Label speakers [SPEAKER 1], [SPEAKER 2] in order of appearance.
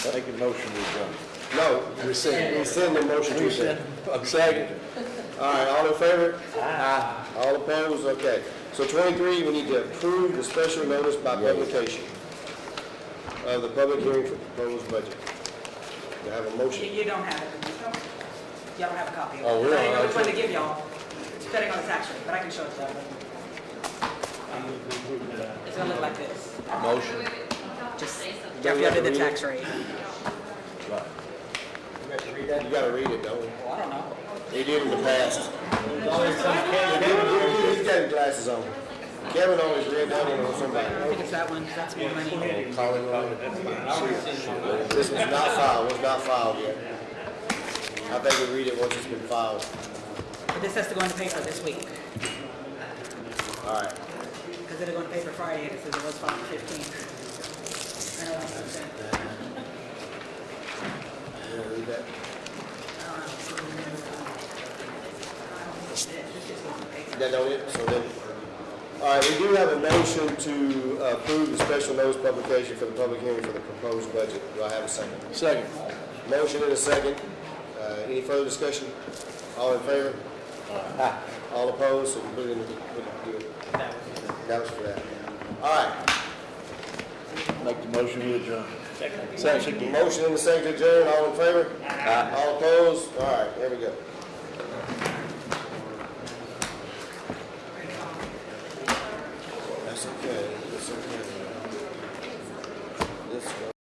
[SPEAKER 1] Make a motion to
[SPEAKER 2] No, rescind, rescind the motion to adjourn. I'm second. All right, all in favor? Aye. All opposed, okay. So twenty-three, we need to approve the special notice by publication of the public hearing for proposed budget. Do I have a
[SPEAKER 3] You,
[SPEAKER 2] motion?
[SPEAKER 3] you don't have it. Y'all don't have a copy. of it.
[SPEAKER 2] Oh, really?
[SPEAKER 3] I didn't know which one to give y'all, depending on the tax rate, but I can show it to y'all. It's gonna look like this.
[SPEAKER 1] adjourn. Motion.
[SPEAKER 3] Just, y'all did the tax rate.
[SPEAKER 1] Right.
[SPEAKER 2] You gotta read it, don't
[SPEAKER 3] Well, I don't know.
[SPEAKER 2] we? He did in the past. He- He's got glasses on. Kevin always read that one on
[SPEAKER 3] I
[SPEAKER 2] somebody.
[SPEAKER 3] think it's that one, 'cause that's more money.
[SPEAKER 2] Calling on- This was not filed, was not filed yet. I think we read it once it's been filed.
[SPEAKER 3] But this has to go in the paper this week,
[SPEAKER 2] All right.
[SPEAKER 3] because it'll go in the paper Friday, and it says it was filed on the fifteenth. I don't understand.
[SPEAKER 2] You wanna read that? That don't it? So then, all right, we do have a motion to uh, approve the special notice publication for the public hearing for the proposed budget. Do I have a second?
[SPEAKER 1] Second.
[SPEAKER 2] Motion and a second. Uh, Any further discussion? All in favor? Aye. All opposed, so we put it in the, put it- do it. That was for that. All right,
[SPEAKER 1] Make the motion to adjourn. Second. Second.
[SPEAKER 2] motion and a second, adjourn, all in favor? Aye. All opposed? All right, there we go. That's okay, that's okay.